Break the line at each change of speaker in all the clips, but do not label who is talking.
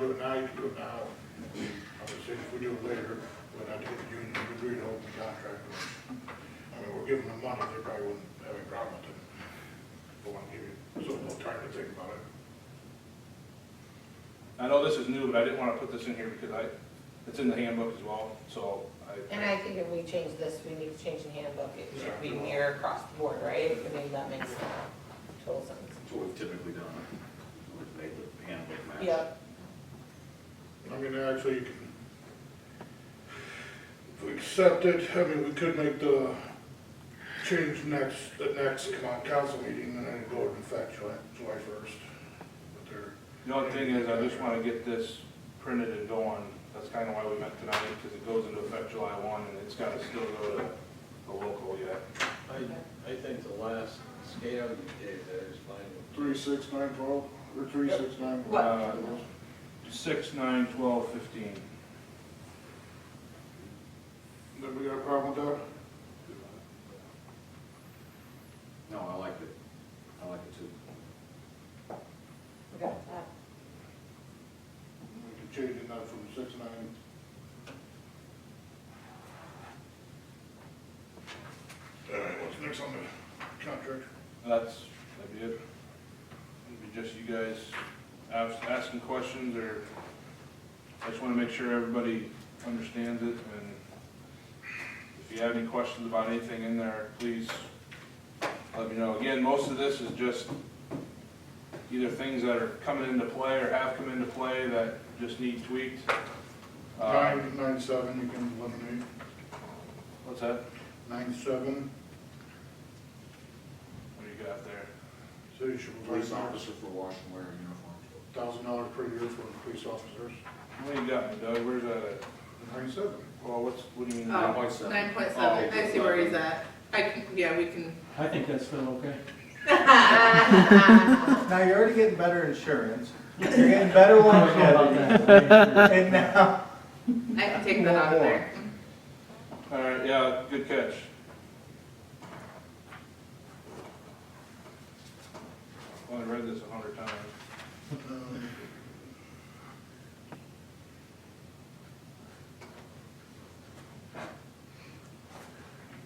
do it now, obviously if we do it later, we'd have to get the union to agree to open the contract. I mean, we're giving them money, they probably wouldn't have a problem with it. But want to give you some little time to think about it.
I know this is new, but I didn't wanna put this in here because I, it's in the handbook as well, so
And
I,
I think if we change this, we need to change the handbook, it should be
Yeah.
mirror across the board, right? I mean, that makes total sense.
That's what we've typically done, we've made the handbook match.
Yeah,
I mean, actually, you can, if we accept it, I mean, we could make the change next, the next con- council meeting, and then go into effect July, July first. But there,
the only thing is, I just wanna get this printed and going. That's kinda why we met tonight, because it goes into effect July one, and it's gotta still go to the local yet.
I, I think the last scale you gave there is fine.
Three, six, nine, twelve, or three, six, nine?
What?
Uh, Six, nine, twelve, fifteen.
Then we got a problem with that?
No, I like it, I like it too.
okay.
We can change it now from six, nine.
all right, Uh, what's next on the contract?
That's, that'd be it. It'd be just you guys ask- asking questions, or I just wanna make sure everybody understands it, and if you have any questions about anything in there, please let me know. Again, most of this is just either things that are coming into play or have come into play that just need tweaked. Uh,
Nine, nine, seven, you can eliminate,
What's that?
nine, seven,
What do you got there?
city should
Police
provide
officer for wash and wear uniform.
thousand dollars per year for police officers,
What do you got, Doug? Where's that at?
nine, seven.
Well, what's, what do you mean?
Oh,
point seven.
Nine point
Oh,
seven, I see where he's at. I, can- yeah, we can.
I think that's still okay.
Now, you're already getting better insurance, you're getting better one, and now,
I can take that out of there.
All right, yeah, good catch. Well, I read this a hundred times.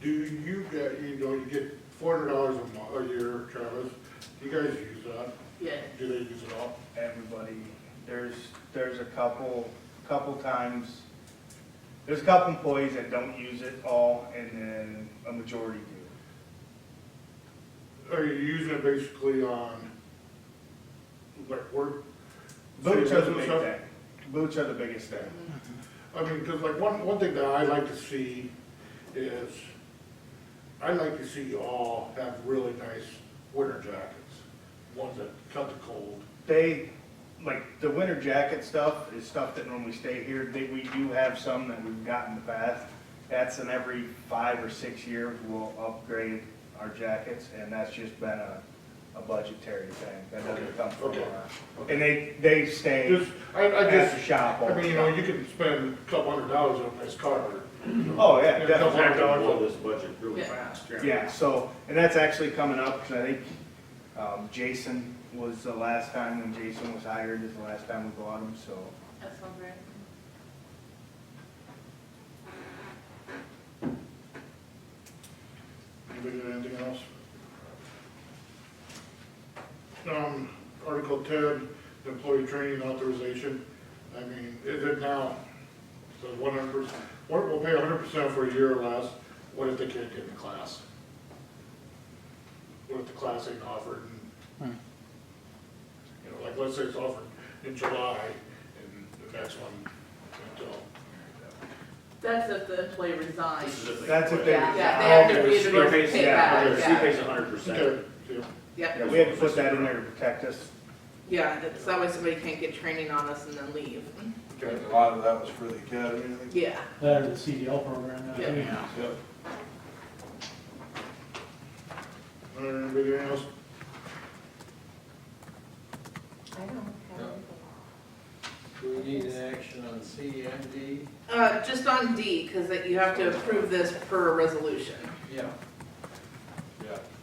Do you get, you know, you get four hundred dollars a mo, a year, Travis, you guys use that,
Yeah.
do they use it all?
everybody, there's, there's a couple, couple times, there's a couple employees that don't use it all, and then a majority do.
Are you using it basically on, like, work?
Boots are the big
business stuff?
thing, boots are the biggest thing.
Mm-hmm. I mean, because like one, one thing that I like to see is, I like to see you all have really nice winter jackets, ones that cut the cold.
They, like, the winter jacket stuff is stuff that normally stay here, they, we do have some that we've got in the past. That's in every five or six years, we'll upgrade our jackets, and that's just been a, a budgetary thing, that doesn't come from
Okay,
us.
okay.
And they, they stay
Just, I, I
at the
just,
shop all
I
the
mean, you know,
time.
you can spend a couple hundred dollars on a nice car.
Oh, yeah,
Yeah,
definitely.
Hundred dollars.
Blow this budget really
Yeah.
fast.
Yeah, so, and that's actually coming up, because I think um, Jason was the last time, when Jason was hired, is the last time we bought him, so.
That sounds right.
Anybody got anything else? Um, Article ten, employee training authorization, I mean, is it now, so one hundred percent, we'll pay hundred percent for a year or less, what if they can't get in the class? What if the class ain't offered and, you know, like, let's say it's offered in July, and the next one, until,
That's if the employee resigns.
This is if they
That's if
quit.
they-
Yeah, yeah, they have
Yeah,
to be the
She
ones
pays,
to pay
yeah,
back,
okay, she
yeah.
pays hundred percent.
okay, yeah.
Yeah,
Yep,
we had to put that in there to protect us.
yeah, that's that way somebody can't get training on us and then leave.
okay.
A lot of that was for the academy, I think.
Yeah.
That or the CDL program, I think.
Yeah.
Yep.
Uh, Anybody else?
I don't
Yeah.
have anything.
Do we need an action on CMD?
Uh, just on D, because you have to approve this per resolution.
Yeah.